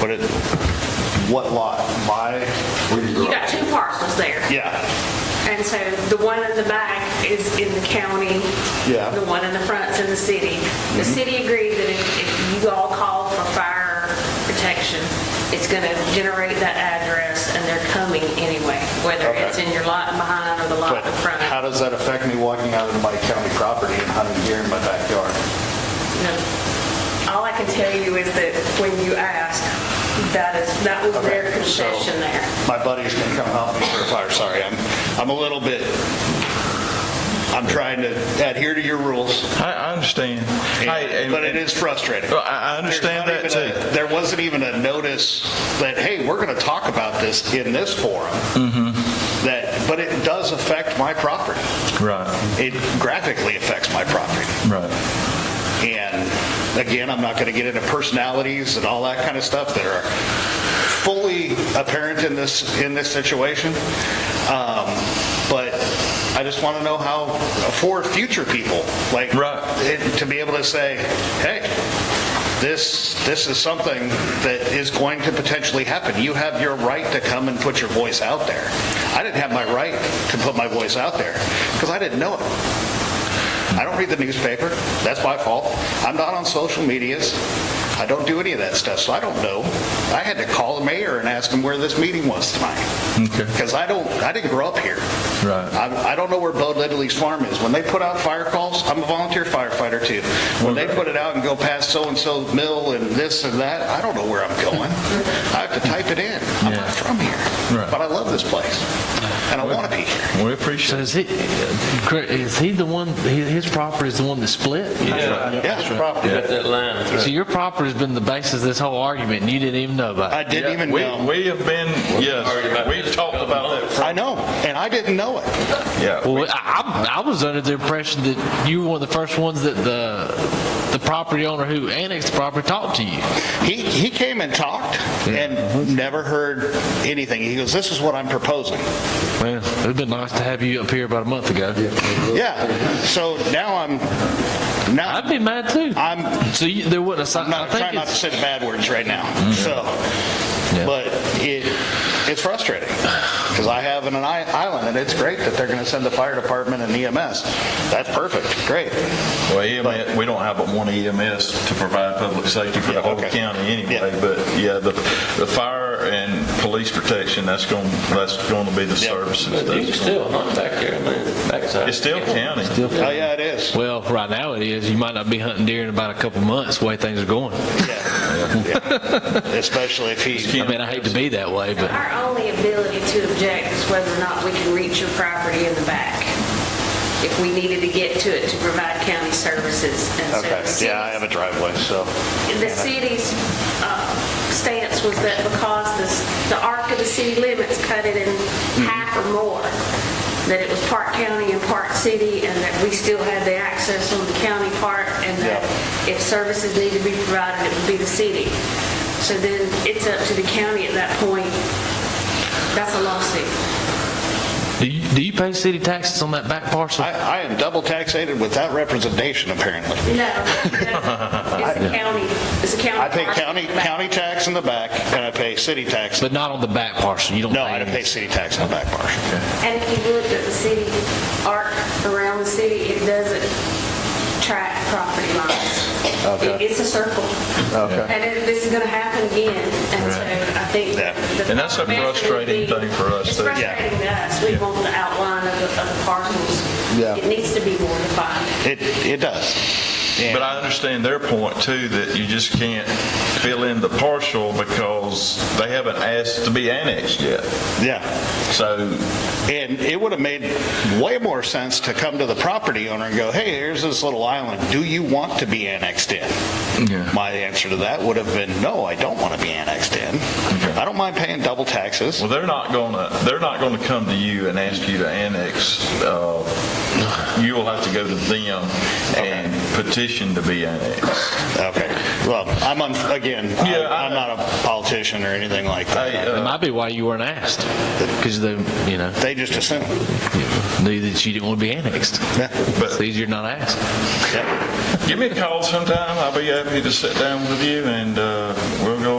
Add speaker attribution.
Speaker 1: But it, what lot? My, where you
Speaker 2: You
Speaker 1: grew
Speaker 2: got
Speaker 1: up?
Speaker 2: two parcels there.
Speaker 1: Yeah,
Speaker 2: And so the one in the back is in the county.
Speaker 1: Yeah. Mm-hmm.
Speaker 2: The one in the front's in the city. The city agreed that if- if you all call for fire protection, it's going to generate that address and they're coming anyway, whether
Speaker 1: Okay.
Speaker 2: it's in your lot behind or the
Speaker 1: but
Speaker 2: lot in front.
Speaker 1: how does that affect me walking out of my county property and hunting deer in my backyard?
Speaker 2: No. All I can tell you is that when you ask, that is, that was their
Speaker 1: Okay, so-
Speaker 2: concession there.
Speaker 1: My buddies can come help me for a fire, sorry, I'm, I'm a little bit, I'm trying to adhere to your rules,
Speaker 3: I, I understand. Hey,
Speaker 1: and-
Speaker 3: and-
Speaker 1: but it is frustrating.
Speaker 3: Well, I, I understand that
Speaker 1: There's not even
Speaker 3: too.
Speaker 1: a- There wasn't even a notice that, hey, we're going to talk about this in this forum.
Speaker 3: Mm-hmm.
Speaker 1: That, but it does affect my property.
Speaker 3: Right,
Speaker 1: It graphically affects my property.
Speaker 3: right.
Speaker 1: And again, I'm not going to get into personalities and all that kind of stuff that are fully apparent in this, in this situation. Um, But I just want to know how, for future people, like,
Speaker 3: Right.
Speaker 1: it- to be able to say, hey, this, this is something that is going to potentially happen. You have your right to come and put your voice out there. I didn't have my right to put my voice out there because I didn't know it. I don't read the newspaper. That's my fault. I'm not on social medias. I don't do any of that stuff, so I don't know. I had to call the mayor and ask him where this meeting was tonight.
Speaker 3: Okay,
Speaker 1: Because I don't, I didn't grow up here.
Speaker 3: right.
Speaker 1: I, I don't know where Bo Lidley's farm is. When they put out fire calls, I'm a volunteer firefighter too. When they put it out and go past so-and-so's mill and this and that, I don't know where I'm going. I have to type it in. I'm
Speaker 3: Yeah.
Speaker 1: not from here.
Speaker 3: Right.
Speaker 1: But I love this place, and I want to be here.
Speaker 3: We
Speaker 4: So
Speaker 3: appreciate it.
Speaker 4: is he, is he the one, his his property is the one that split?
Speaker 1: Yeah, it's a problem.
Speaker 5: Got that line.
Speaker 4: So your property's been the basis of this whole argument, and you didn't even know about it?
Speaker 1: I didn't even
Speaker 3: We,
Speaker 1: know.
Speaker 3: we have been,
Speaker 5: Sorry
Speaker 3: yes,
Speaker 5: about
Speaker 3: we've
Speaker 5: this.
Speaker 3: talked about that.
Speaker 1: I know, and I didn't know it.
Speaker 3: Yeah.
Speaker 4: Well, I, I I was under the impression that you were one of the first ones that the, the property owner who annexed the property talked to you.
Speaker 1: He, he came and talked and never heard anything. He goes, this is what I'm proposing.
Speaker 4: Well, it'd been nice to have you up here about a month ago.
Speaker 1: Yeah, so now I'm,
Speaker 4: I'd
Speaker 1: now,
Speaker 4: be mad too.
Speaker 1: I'm
Speaker 4: So you, there wasn't a
Speaker 1: I'm
Speaker 4: sign, I
Speaker 1: not, trying
Speaker 4: think
Speaker 1: not to
Speaker 4: it's, Mm-hmm.
Speaker 1: say the bad words right now, so.
Speaker 4: Yeah.
Speaker 1: But it, it's frustrating, because I have an i- island, and it's great that they're going to send the fire department and EMS. That's perfect, great.
Speaker 3: Well, EMS, we don't have but one EMS to provide public safety for the whole
Speaker 1: okay.
Speaker 3: county anyway,
Speaker 1: Yeah.
Speaker 3: but yeah, the, the fire and police protection, that's going, that's going to be the
Speaker 1: Yeah.
Speaker 3: services.
Speaker 5: But you can
Speaker 3: that's-
Speaker 5: still hunt back there in the backside.
Speaker 3: It's still county.
Speaker 1: Oh, yeah, it is.
Speaker 4: well, right now it is. You might not be hunting deer in about a couple months, the way things are going.
Speaker 1: Yeah. Yeah. Especially if he,
Speaker 4: I mean, I hate to be that way, but.
Speaker 2: Our only ability to object is whether or not we can reach your property in the back, if we needed to get to it to provide county services. And so the
Speaker 1: okay, yeah, I have a driveway, so.
Speaker 2: city's- The city's uh, stance was that because this- the arc of the city limits cut it in
Speaker 1: Mm-hmm.
Speaker 2: half or more, that it was part county and part city, and that we still had the access on the county part, and that if services needed to be provided, it would be the city. So then it's up to the county at that point. That's a lawsuit.
Speaker 4: Do you, do you pay city taxes on that back parcel?
Speaker 1: I, I am double taxated with that representation, apparently.
Speaker 2: No, no, it's a county, it's a county.
Speaker 1: I pay
Speaker 2: parcel.
Speaker 1: county, county tax in the back, and I pay city tax.
Speaker 4: But not on the back parcel, you don't pay.
Speaker 1: No, I don't pay
Speaker 4: any.
Speaker 1: city tax in the back, Marshall.
Speaker 2: And if you looked at the city arc around the city, it doesn't track property lines. It- It's a circle. Okay. And it- this is going to happen again, and so I think.
Speaker 1: Yeah.
Speaker 2: the
Speaker 3: And that's a
Speaker 2: proper measure would
Speaker 3: frustrating
Speaker 2: be-
Speaker 3: thing for us
Speaker 2: It's
Speaker 3: too. Yeah.
Speaker 2: frustrating to us. We want the outline of the of the parcels.
Speaker 1: Yeah.
Speaker 2: It needs to be more defined.
Speaker 1: It, it does.
Speaker 3: But I understand their point too, that you just can't fill in the partial because they haven't asked to be annexed yet.
Speaker 1: Yeah.
Speaker 3: So
Speaker 1: And it would have made way more sense to come to the property owner and go, hey, here's this little island. Do you want to be annexed in?
Speaker 3: Yeah.
Speaker 1: My answer to that would have been, no, I don't want to be annexed in. I don't mind paying double taxes.
Speaker 3: Well, they're not gonna, they're not gonna come to you and ask you to annex. uh, You will have to go to them and petition to be annexed.
Speaker 1: Okay. Well, I'm, un- again,
Speaker 3: Yeah, I-
Speaker 1: I- I'm not a politician or anything like
Speaker 3: Hey,
Speaker 1: that.
Speaker 3: uh,
Speaker 4: It might be why you weren't asked, because they, you know,
Speaker 1: They just assume.
Speaker 4: knew that you didn't want to be annexed. It's easier not asked.
Speaker 1: Yeah.
Speaker 3: give me a call sometime. I'll be happy to sit down with you and uh, we'll